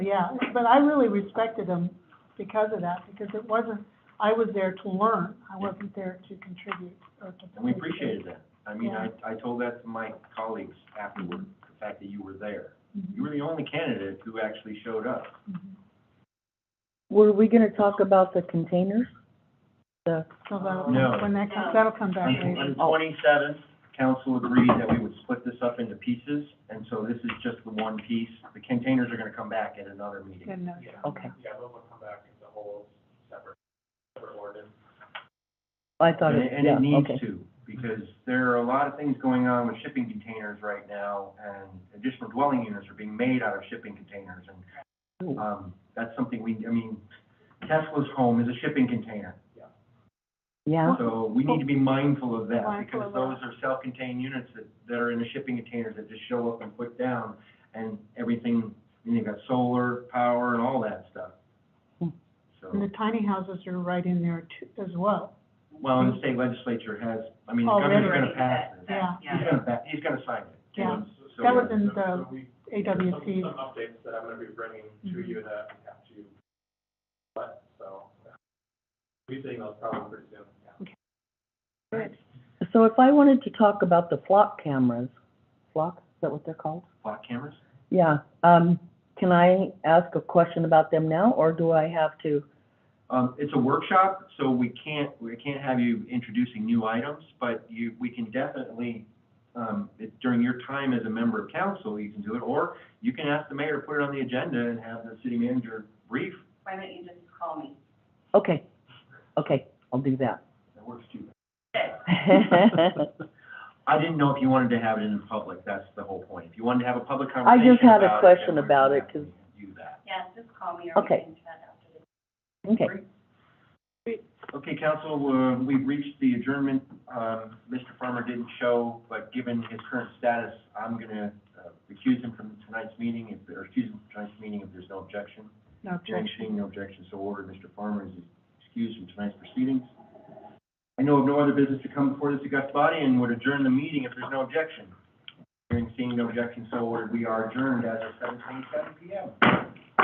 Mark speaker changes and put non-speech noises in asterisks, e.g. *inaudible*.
Speaker 1: yeah, but I really respected him because of that, because it wasn't, I was there to learn, I wasn't there to contribute or to.
Speaker 2: And we appreciated that. I mean, I,
Speaker 1: Yeah.
Speaker 2: I told that to my colleagues afterward, the fact that you were there. You
Speaker 1: Mhm,
Speaker 2: were the only candidate who actually showed up.
Speaker 1: mhm.
Speaker 3: Were we gonna talk about the containers? The,
Speaker 1: So that'll,
Speaker 2: No.
Speaker 1: when that comes, that'll come back later.
Speaker 2: On twenty-seventh, council agreed that we would split this up into pieces, and so this is just the one piece. The containers are gonna come back at another meeting.
Speaker 1: Then, uh,
Speaker 3: okay,
Speaker 4: Yeah, those will come back as a whole separate, separate ordinance.
Speaker 3: I thought
Speaker 2: And
Speaker 3: it,
Speaker 2: it- and
Speaker 3: yeah,
Speaker 2: it needs
Speaker 3: okay.
Speaker 2: to, because there are a lot of things going on with shipping containers right now, and additional dwelling units are being made out of shipping containers, and Um, that's something we, I mean, Tesla's home is a shipping container,
Speaker 3: Yeah,
Speaker 2: so we need to be mindful of that,
Speaker 1: Mindful
Speaker 2: because
Speaker 1: of
Speaker 2: those
Speaker 1: that.
Speaker 2: are self-contained units that, that are in the shipping containers that just show up and put down, and everything, and you've got solar power and all that stuff.
Speaker 3: Hmm.
Speaker 1: And the
Speaker 2: So,
Speaker 1: tiny houses are right in there too, as well,
Speaker 2: well, and the state legislature has, I mean, the governor's gonna
Speaker 5: Already.
Speaker 2: pass this.
Speaker 1: yeah.
Speaker 2: He's gonna, pa- he's gonna sign it.
Speaker 1: Yeah.
Speaker 2: So-
Speaker 1: That was in the
Speaker 4: So we- there's some-
Speaker 1: AWC,
Speaker 4: Some updates that I'm gonna be bringing to
Speaker 1: Mhm.
Speaker 4: you that we have to, but, so, yeah. we think those probably pretty soon, yeah.
Speaker 3: so if I wanted to talk about the flock cameras, flock, is that what they're called?
Speaker 2: Block cameras?
Speaker 3: Yeah, um, can I ask a question about them now, or do I have to?
Speaker 2: Um, it's a workshop, so we can't, we can't have you introducing new items, but you, we can definitely, um, it- during your time as a member of council, you can do it, or you can ask the mayor to put it on the agenda and have the city manager brief.
Speaker 5: Why don't you just call me?
Speaker 3: Okay, okay, I'll do that.
Speaker 2: That works
Speaker 3: *laughs*
Speaker 2: too. I didn't know if you wanted to have it in public, that's the whole point. If you wanted to have a public conversation
Speaker 3: just had a
Speaker 2: about it, then
Speaker 3: question
Speaker 2: we can
Speaker 3: about it,
Speaker 2: definitely Do that.
Speaker 5: Yeah, just call me or we
Speaker 3: Okay.
Speaker 5: can chat after this.
Speaker 3: Okay,
Speaker 2: Okay, council, uh, we've reached the adjournment. Um, Mr. Farmer didn't show, but given his current status, I'm gonna uh, recuse him from tonight's meeting, if, there- or excuse him from tonight's meeting if there's no objection.
Speaker 1: no
Speaker 2: Hearing
Speaker 1: objection.
Speaker 2: seeing no objection, so ordered. Mr. Farmer is excused from tonight's proceedings. I know of no other business to come before this august body and would adjourn the meeting if there's no objection. Hearing seeing no objection, so ordered. We are adjourned as of seven twenty-seven P M.